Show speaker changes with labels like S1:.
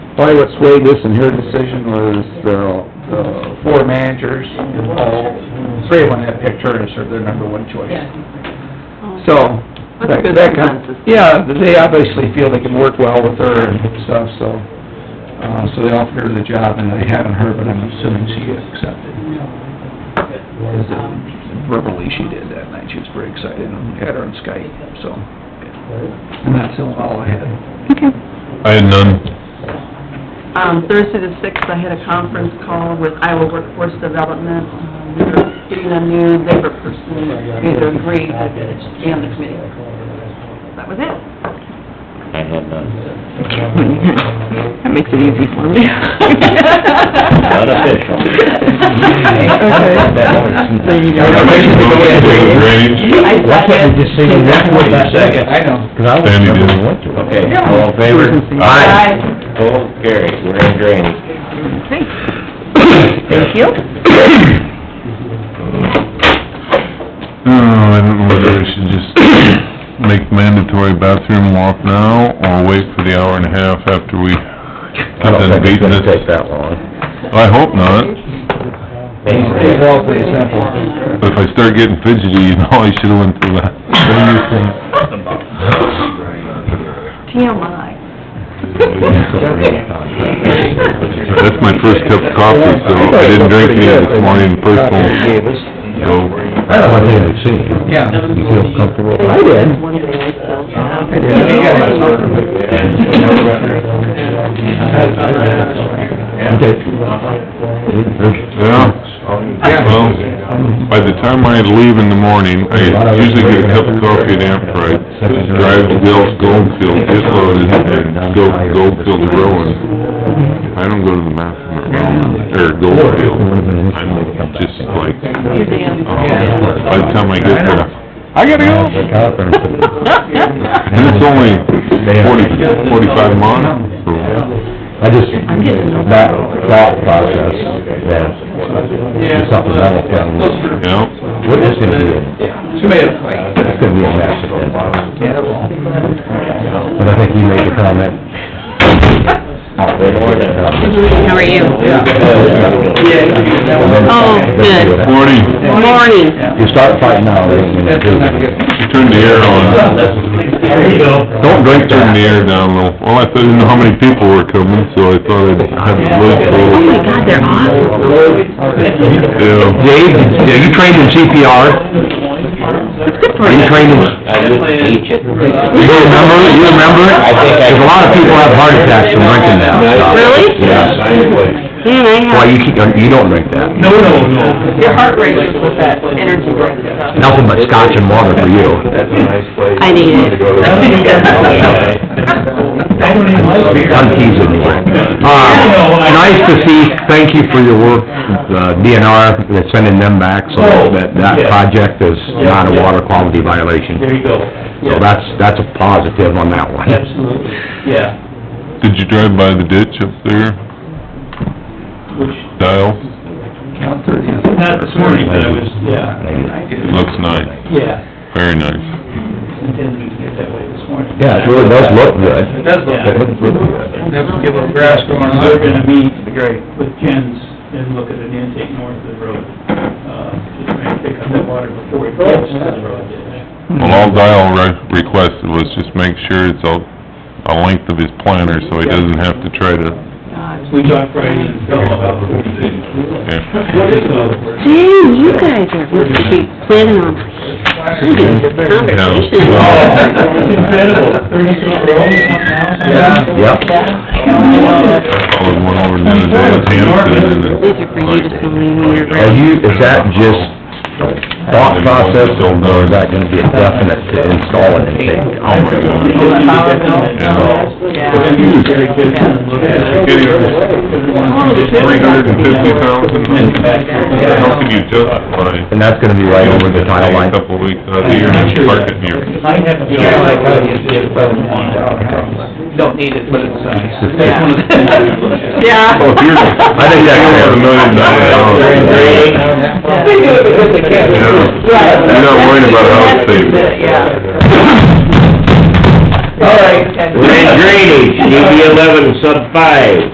S1: Probably what swayed this and her decision was the, the four managers, and all, three of them had picked her as her- their number one choice. So, that,
S2: That's a good
S1: that kind,
S2: consensus.
S1: yeah, they obviously feel they can work well with her and stuff, so, uh, so they offered her the job, and they haven't heard, but I'm assuming she accepted. Because, uh, Verbally, she did that night, she was very excited, and had her on Skype, so, yeah. and that's all I had.
S2: Okay.
S3: I had none.
S2: Um, Thursday the sixth, I had a conference call with Iowa Workforce Development. Um, We were getting a new labor person, we either agreed that it should be on the committee. That was it.
S4: I had none.
S5: That makes it easy for me.
S4: Not official.
S5: Okay. There you go.
S3: I make a motion to go to drainage.
S1: Why can't you just say you
S4: That's what you said.
S1: I know.
S3: Sandy did.
S4: Okay, all in favor?
S3: Aye.
S4: Opposed, carried, we're in drainage.
S5: Thank you.
S3: Oh, I don't know whether we should just make mandatory bathroom walk now, or wait for the hour and a half after we
S4: I
S3: have
S4: don't
S3: done
S4: think it's
S3: beating
S4: gonna take
S3: this.
S4: that long.
S3: I hope not,
S1: These are all pretty simple.
S3: but if I start getting fidgety, you know, I should've went through that. What do you think?
S2: TMI.
S3: That's my first cup of coffee, so I didn't drink any this morning, first one.
S4: I don't want anyone to see
S1: Yeah.
S4: You feel comfortable?
S1: I did.
S2: One day I still.
S1: I did. Yeah, that's all right.
S3: Yeah, well, by the time I leave in the morning, I usually get a cup of coffee at Ampride, drive to Dell's Goldfield, just load it, and go to Goldfield Rowan. I don't go to the bathroom at Rowan, or Goldfield, I'm just like,
S2: You damn.
S3: uh, by the time I get there,
S1: I gotta go.
S3: and it's only forty, forty-five miles. so,
S4: I just, that thought process, that supplemental thing,
S3: yeah.
S4: what is gonna be, a-
S1: Tomato fight.
S4: it's gonna be a massive impact.
S1: Yeah, well.
S4: But I think you made the comment.
S5: How are you?
S4: Oh,
S5: Oh, good.
S3: Morning,
S5: Morning.
S4: You start fighting now, they ain't gonna
S1: That's
S4: do
S1: not
S4: it.
S1: good.
S3: turn the air on.
S1: There you go.
S3: Don't drink during the air down low. Well, I didn't know how many people were coming, so I thought I'd have a
S5: Oh
S3: little...
S5: my God, they're awesome.
S3: Yeah.
S4: Dave, are you trained in CPR?
S5: Good for
S4: Are you
S5: you.
S4: trained in,
S6: I would teach it.
S4: you remember, you remember?
S6: I think I-
S4: Because a lot of people have heart attacks from drinking that stuff.
S5: Really?
S4: Yeah.
S5: Man, I have.
S4: Well, you keep, you don't drink that.
S1: No, no, no.
S2: Your heart rate was with that energy drink stuff.
S4: Nothing but scotch and water for you.
S5: I need it.
S1: I don't even like beer.
S4: I'm teasing you. Uh, nice to see, thank you for your work, uh, the DNR, they're sending them back, so
S6: Oh,
S4: that, that project is not a water quality violation.
S6: you go.
S4: So that's, that's a positive on that one.
S6: Absolutely, yeah.
S3: Did you drive by the ditch up there,
S6: Which,
S3: Dial?
S1: Count thirty.
S6: not this morning, but I was, yeah,
S3: It looks nice,
S6: yeah.
S3: very nice.
S6: Intended to get that way this morning.
S4: Yeah, it really does look good.
S6: It does look good.
S4: It looks really good.
S1: Never give up grass going on.
S6: We're gonna meet with Jens and look at an intake north of the road, uh, just trying to pick up that water before it gets to the road.
S3: Well, all Dial re- requested was just make sure it's a, a length of his planter, so he doesn't have to try to,
S6: We talked Friday and fell about forty feet.
S3: yeah.
S5: Dang, you guys are really planning on, having this
S3: Oh.
S5: conversation.
S6: Incredible, thirty foot road.
S1: Yeah.
S3: I
S4: Yep.
S3: followed one over the other day with Hampton, and it's
S5: These are for you to come in when you're
S3: Oh,
S4: Are
S5: ready.
S4: you, is that just thought process, or is that gonna be a definite to install an intake?
S3: Oh, my God. Yeah.
S2: Yeah.
S3: Three hundred and fifty thousand, how can you justify?
S4: And that's gonna be right over the tile
S3: A
S4: line?
S3: couple of weeks out of the year, and park it near.
S6: Might have to be. Don't need it, but it's, uh.
S5: Yeah.
S3: Oh, if you're-
S4: I think that's fair.
S3: A million dollars. You're not worried about how it's saved.
S2: Yeah. Okay.
S4: We're in drainage, DD eleven sub five.